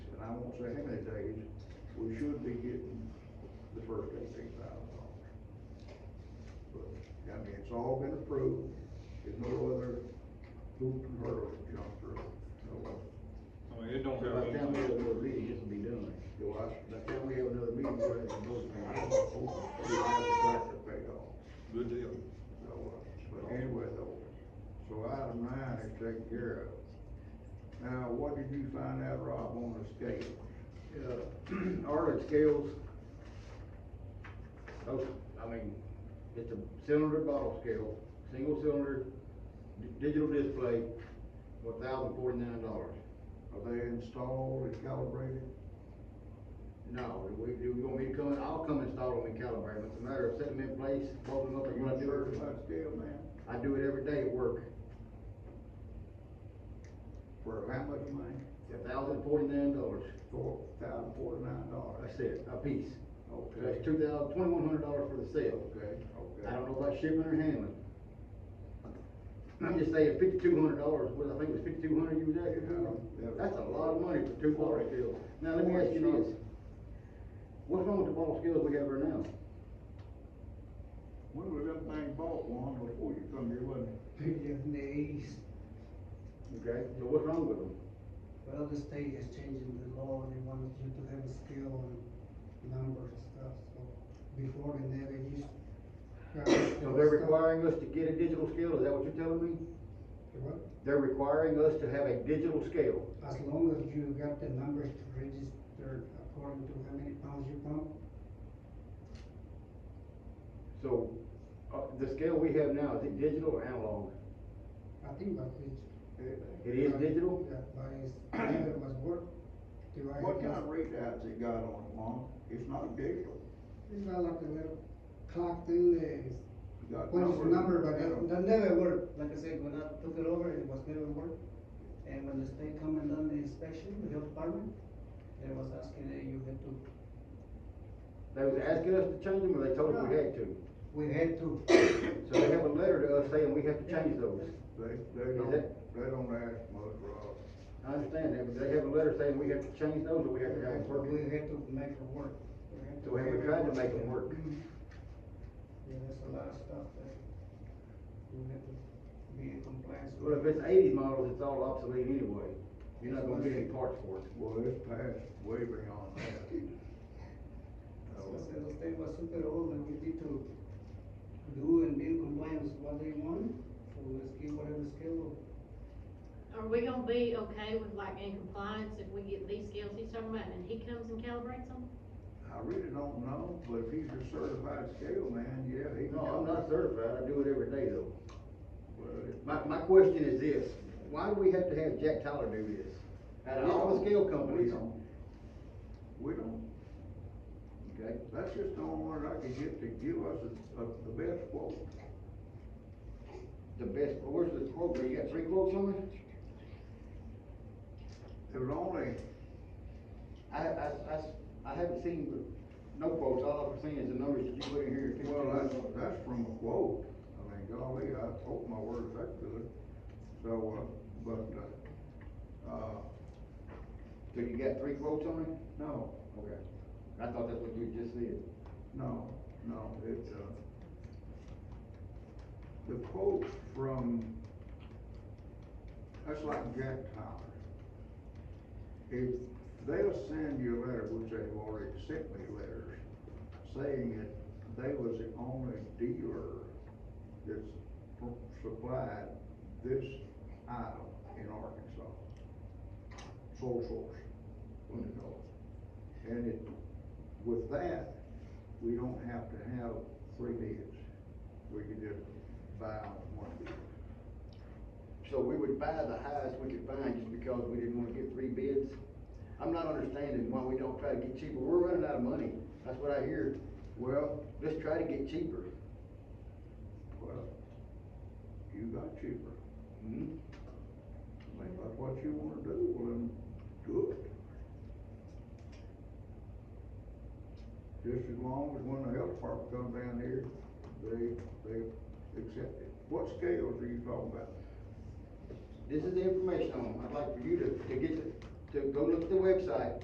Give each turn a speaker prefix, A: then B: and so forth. A: don't say how many days, we should be getting the first eighteen thousand dollars. But, I mean, it's all been approved, there's no other hoop and hurdle to jump through, uh, so,
B: I mean, it don't
C: By the
B: have.
C: time we
B: anything-
C: have another meeting, this will be done.
A: do I,
C: By the time we have another meeting, we're gonna have both
A: I
C: meetings.
A: don't know, we have the right to pay off.
B: Good deal.
A: So, uh, but anyway though, so item nine is taken care of. Now, what did you find out, Rob, on the scale?
C: Uh, Arlen scales, oh, I mean, it's a cylinder bottle scale, single cylinder, di- digital display, for thousand forty-nine dollars.
A: Are they installed and calibrated?
C: No, we, you want me to come, in? I'll come install them and calibrate them, it's a matter of setting them in place, bolting them up,
A: Are
C: and
A: you
C: what I do. it.
A: certified scale man?
C: I do it every day at work,
A: For how much money?
C: thousand forty-nine dollars,
A: Four thousand forty-nine dollars.
C: that's it, a piece. That's
A: Okay,
C: two thousand, twenty-one hundred dollars for the sale.
A: okay, okay.
C: I don't know about shipping or handling. I'm just saying fifty-two hundred dollars, what, I think it was fifty-two hundred you was asking
A: Yeah.
C: for? That's a lot of money for two ball skills. Now, let me ask you this. What's wrong with the ball skills we have right now?
A: When was that thing bought one before you come here, wasn't it?
D: Pigeon in the east,
C: Okay, so what's wrong with them?
D: well, the state is changing the law, they want you to have a skill and number and stuff, so before they never used.
C: So they're requiring us to get a digital scale, is that what you're telling me?
D: Well,
C: They're requiring us to have a digital scale.
D: As long as you got the numbers to register according to how many pounds you pump,
C: So, uh, the scale we have now, is it digital or analog?
D: I think that is.
C: It is digital?
D: Yeah, but it's, it was work. device
A: What kind
D: was-
A: of readouts it got on it, Lon? It's not digital,
D: It's got like a little clock thing there, it's
A: it got
D: What
A: numbers.
D: is the number, but that, that never worked, like I said, when I took it over, it was never worked. And when the state come and done the inspection, the health department, they was asking that you had to,
C: They was asking us to change them, or they told us we had to?
D: we had to,
C: So they have a letter to us saying we have to change those.
A: They, they
C: Is
A: don't,
C: it?
A: they don't ask much, Rob.
C: I understand that, but they have a letter saying we have to change those, or we have to have them
D: we
C: working.
D: had to make it work. We had to
C: So have we tried to make it work?
D: Mhm. Yeah, there's a lot of stuff that you have to be in compliance with.
C: Well, if it's eighties models, it's all obsolete anyway. You're not gonna get any parts for it.
A: Well, it's past way beyond that.
D: So I said, the state was super old and we need to do and be in compliance what they want, so let's give whatever skill.
E: Are we gonna be okay with like in compliance if we get these scales he's talking about and he comes and calibrates them?
A: I really don't know, but if he's a certified scale man, yeah, he can.
C: No, I'm not certified, I do it every day though.
A: Well, it-
C: My, my question is this, why do we have to have Jack Tyler do this? Out of all the scale
A: We
C: companies,
A: don't. We don't,
C: okay?
A: that's just the only one I could get to give us a, a, the best quote.
C: The best, where's the quote, you got three quotes on it?
A: It was only,
C: I, I, I, I haven't seen no quotes, all I've seen is the numbers that you put in here.
A: well, that's, that's from a quote, I mean, golly, I hope my word's that good, so, uh, but, uh, uh,
C: So you got three quotes on it?
A: no,
C: Okay. I thought that's what you just said.
A: No, no, it's, uh, the quote from, that's like Jack Tyler. If they'll send you a letter, which they've already sent me letters, saying that they was the only dealer that's pr- supplied this item in Arkansas. Sole source, what they call it. And it, with that, we don't have to have three bids. We can just buy on one bid.
C: So we would buy the highest we could find just because we didn't wanna get three bids? I'm not understanding why we don't try to get cheaper. We're running out of money. That's what I hear.
A: Well,
C: Let's try to get cheaper.
A: well, you got cheaper. I
C: Hmm?
A: mean, if that's what you wanna do, well, then do it. Just as long as when the health department comes down here, they, they accept it. What scales are you talking about?
C: This is the information on, 'em. I'd like for you to, to get, the- to go look at the website,